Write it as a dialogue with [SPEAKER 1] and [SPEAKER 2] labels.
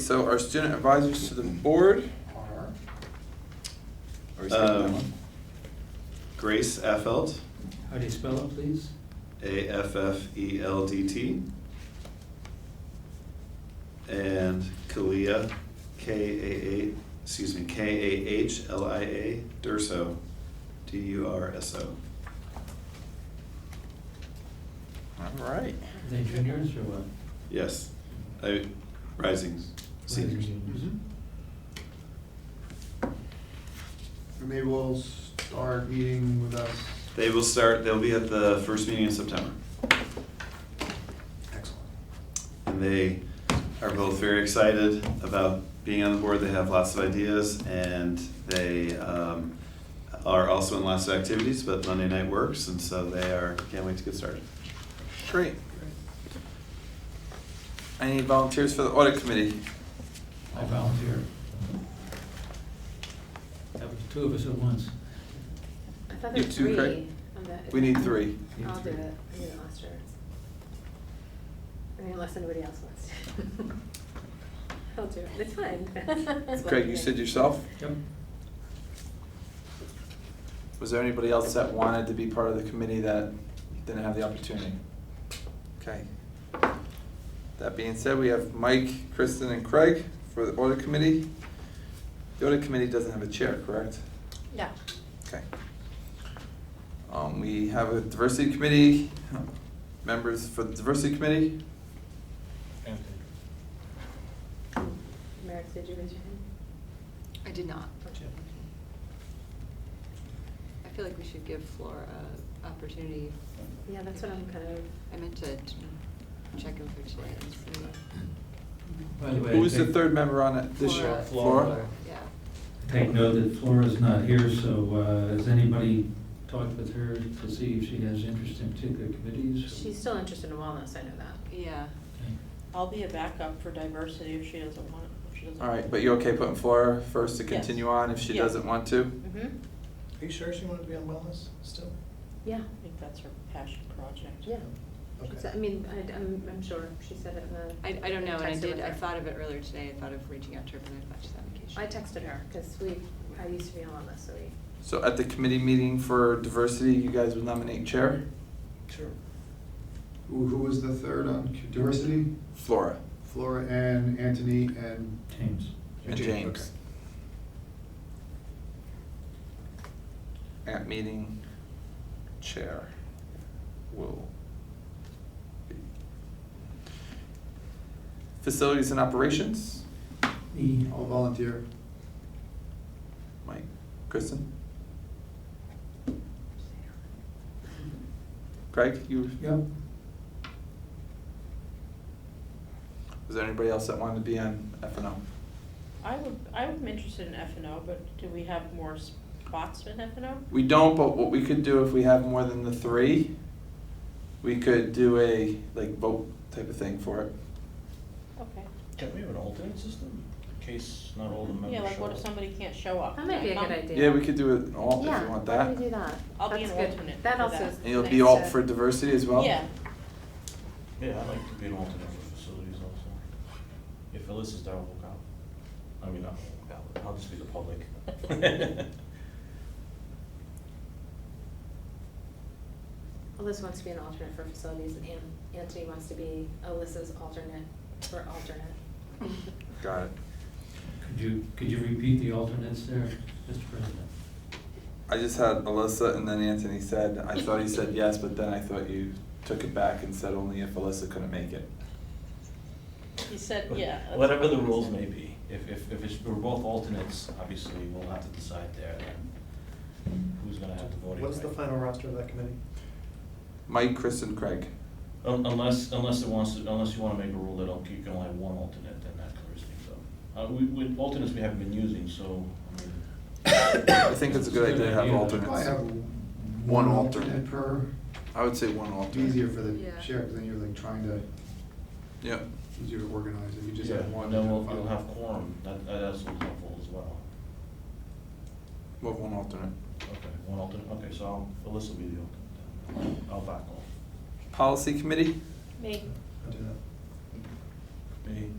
[SPEAKER 1] so our student advisors to the board are. Or is that
[SPEAKER 2] Um,
[SPEAKER 1] one?
[SPEAKER 2] Grace Affeld,
[SPEAKER 3] How do you spell it, please?
[SPEAKER 2] A F F E L D T. And Kalia, K A A, excuse me, K A H L I A Durso, D U R S O.
[SPEAKER 1] All right.
[SPEAKER 3] Are they juniors or what?
[SPEAKER 2] Yes, I, rising seniors.
[SPEAKER 4] Mm-hmm. And they will start meeting with us.
[SPEAKER 2] They will start, they'll be at the first meeting in September.
[SPEAKER 4] Excellent.
[SPEAKER 2] And they are both very excited about being on the board. They have lots of ideas and they um, are also in lots of activities, but Monday night works, and so they are, can't wait to get started.
[SPEAKER 1] Great. I need volunteers for the audit committee.
[SPEAKER 3] I volunteer. That was two of us at once.
[SPEAKER 5] I thought
[SPEAKER 1] You
[SPEAKER 5] there were
[SPEAKER 1] too,
[SPEAKER 5] three
[SPEAKER 1] Craig?
[SPEAKER 5] on that.
[SPEAKER 1] We need three.
[SPEAKER 3] Need
[SPEAKER 5] I'll do
[SPEAKER 3] three.
[SPEAKER 5] it, I did it last year. I mean, unless anybody else wants to. I'll do it, it's fine. It's
[SPEAKER 1] Craig, you
[SPEAKER 5] fine.
[SPEAKER 1] said yourself?
[SPEAKER 3] Yep.
[SPEAKER 1] Was there anybody else that wanted to be part of the committee that didn't have the opportunity? Okay. That being said, we have Mike, Kristen, and Craig for the audit committee. The audit committee doesn't have a chair, correct?
[SPEAKER 5] No.
[SPEAKER 1] Okay. Um, we have a diversity committee, members for the diversity committee.
[SPEAKER 5] Merrick, did you raise your hand?
[SPEAKER 6] I did not.
[SPEAKER 5] Okay.
[SPEAKER 6] I feel like we should give Flora an opportunity.
[SPEAKER 5] Yeah, that's what I'm kind of.
[SPEAKER 6] I meant to t- check in for today. and see.
[SPEAKER 3] By the way,
[SPEAKER 1] Who's the
[SPEAKER 3] take-
[SPEAKER 1] third member on it this year?
[SPEAKER 6] Flora.
[SPEAKER 1] Flora?
[SPEAKER 6] Yeah.
[SPEAKER 3] Take note that Flora's not here, so uh, has anybody talked with her to see if she has interest in particular committees?
[SPEAKER 5] She's still interested in wellness, I know that.
[SPEAKER 6] Yeah.
[SPEAKER 3] Okay.
[SPEAKER 7] I'll be a backup for diversity if she doesn't want, if she doesn't.
[SPEAKER 1] All right, but you okay putting Flora first to continue
[SPEAKER 7] Yes.
[SPEAKER 1] on if she
[SPEAKER 7] Yeah.
[SPEAKER 1] doesn't want to?
[SPEAKER 5] Mm-hmm.
[SPEAKER 4] Are you sure she wanted to be on wellness still?
[SPEAKER 5] Yeah,
[SPEAKER 7] I think that's her passion project.
[SPEAKER 5] yeah. She
[SPEAKER 4] Okay.
[SPEAKER 5] said- I mean, I, I'm, I'm sure, she said it in the.
[SPEAKER 6] I, I don't know, and I
[SPEAKER 5] texted
[SPEAKER 6] did,
[SPEAKER 5] with
[SPEAKER 6] I
[SPEAKER 5] her.
[SPEAKER 6] thought of it earlier today. I thought of reaching out to her, but I thought she's on vacation.
[SPEAKER 5] I texted her, because we, I used to be on this, so we.
[SPEAKER 1] So at the committee meeting for diversity, you guys would nominate chair?
[SPEAKER 4] Sure. Who, who was the third on c- diversity?
[SPEAKER 1] Flora
[SPEAKER 4] Flora and Anthony and?
[SPEAKER 3] James.
[SPEAKER 1] and
[SPEAKER 4] James,
[SPEAKER 1] James.
[SPEAKER 4] okay.
[SPEAKER 1] At meeting, chair will be. Facilities and operations,
[SPEAKER 3] E.
[SPEAKER 4] I'll volunteer.
[SPEAKER 1] Mike, Kristen, Craig, you,
[SPEAKER 3] Yep.
[SPEAKER 1] was there anybody else that wanted to be on F and O?
[SPEAKER 7] I would, I'm interested in F and O, but do we have more spots in F and O?
[SPEAKER 1] We don't, but what we could do if we have more than the three, we could do a like vote type of thing for it.
[SPEAKER 7] Okay.
[SPEAKER 8] Can we have an alternate system in case not all the members show
[SPEAKER 7] Yeah, like what if
[SPEAKER 8] up?
[SPEAKER 7] somebody can't show up?
[SPEAKER 5] That might be a good
[SPEAKER 7] Um,
[SPEAKER 5] idea.
[SPEAKER 1] Yeah, we could do it all if
[SPEAKER 5] Yeah,
[SPEAKER 1] you want
[SPEAKER 5] why don't
[SPEAKER 1] that.
[SPEAKER 5] we do that?
[SPEAKER 7] I'll be
[SPEAKER 5] That's
[SPEAKER 7] an
[SPEAKER 5] good.
[SPEAKER 7] alternate for
[SPEAKER 5] That also
[SPEAKER 7] that.
[SPEAKER 5] is.
[SPEAKER 1] And you'll be
[SPEAKER 5] nice
[SPEAKER 1] alt
[SPEAKER 5] to-
[SPEAKER 1] for diversity as well?
[SPEAKER 7] Yeah,
[SPEAKER 8] Yeah, I'd like to be an alternate for facilities also. If Phyllis is there, I'll walk out. I mean, not walk out, but I'll just be the public.
[SPEAKER 5] Alyssa wants to be an alternate for facilities and An- Anthony wants to be Alyssa's alternate for alternate.
[SPEAKER 1] Got it.
[SPEAKER 3] Could you, could you repeat the alternates there, Mr. President?
[SPEAKER 1] I just had Alyssa and then Anthony said, I thought he said yes, but then I thought you took it back and said only if Alyssa couldn't make it.
[SPEAKER 7] he said, yeah. that's
[SPEAKER 8] Whatever
[SPEAKER 7] what
[SPEAKER 8] the
[SPEAKER 7] he
[SPEAKER 8] rules
[SPEAKER 7] said.
[SPEAKER 8] may be, if, if, if it's, we're both alternates, obviously, we'll have to decide there then who's gonna have the voting right.
[SPEAKER 9] What's the final roster of that committee?
[SPEAKER 1] Mike, Chris and Craig.
[SPEAKER 8] Un- Unless, unless it wants to, unless you wanna make a rule that okay, you can only have one alternate, then that clears things up. Uh, we, we, alternates we haven't been using, so, I mean,
[SPEAKER 1] I think it's a good idea to have
[SPEAKER 4] Probably have
[SPEAKER 1] alternates. One alternate.
[SPEAKER 4] Per,
[SPEAKER 1] I would say one alternate.
[SPEAKER 4] It'd be easier for the
[SPEAKER 6] Yeah.
[SPEAKER 4] chair, because then you're like trying to,
[SPEAKER 1] Yeah.
[SPEAKER 4] easier to organize if you just
[SPEAKER 8] Yeah,
[SPEAKER 4] have one.
[SPEAKER 8] and Then
[SPEAKER 4] and
[SPEAKER 8] we'll,
[SPEAKER 4] five.
[SPEAKER 8] we'll have quorum, that, that's helpful as well.
[SPEAKER 1] Well, one alternate.
[SPEAKER 8] Okay, one alternate, okay, so I'll, Alyssa will be the alternate, then. I'll back off.
[SPEAKER 1] Policy committee?
[SPEAKER 7] Me,
[SPEAKER 4] I'll do that.
[SPEAKER 8] Me,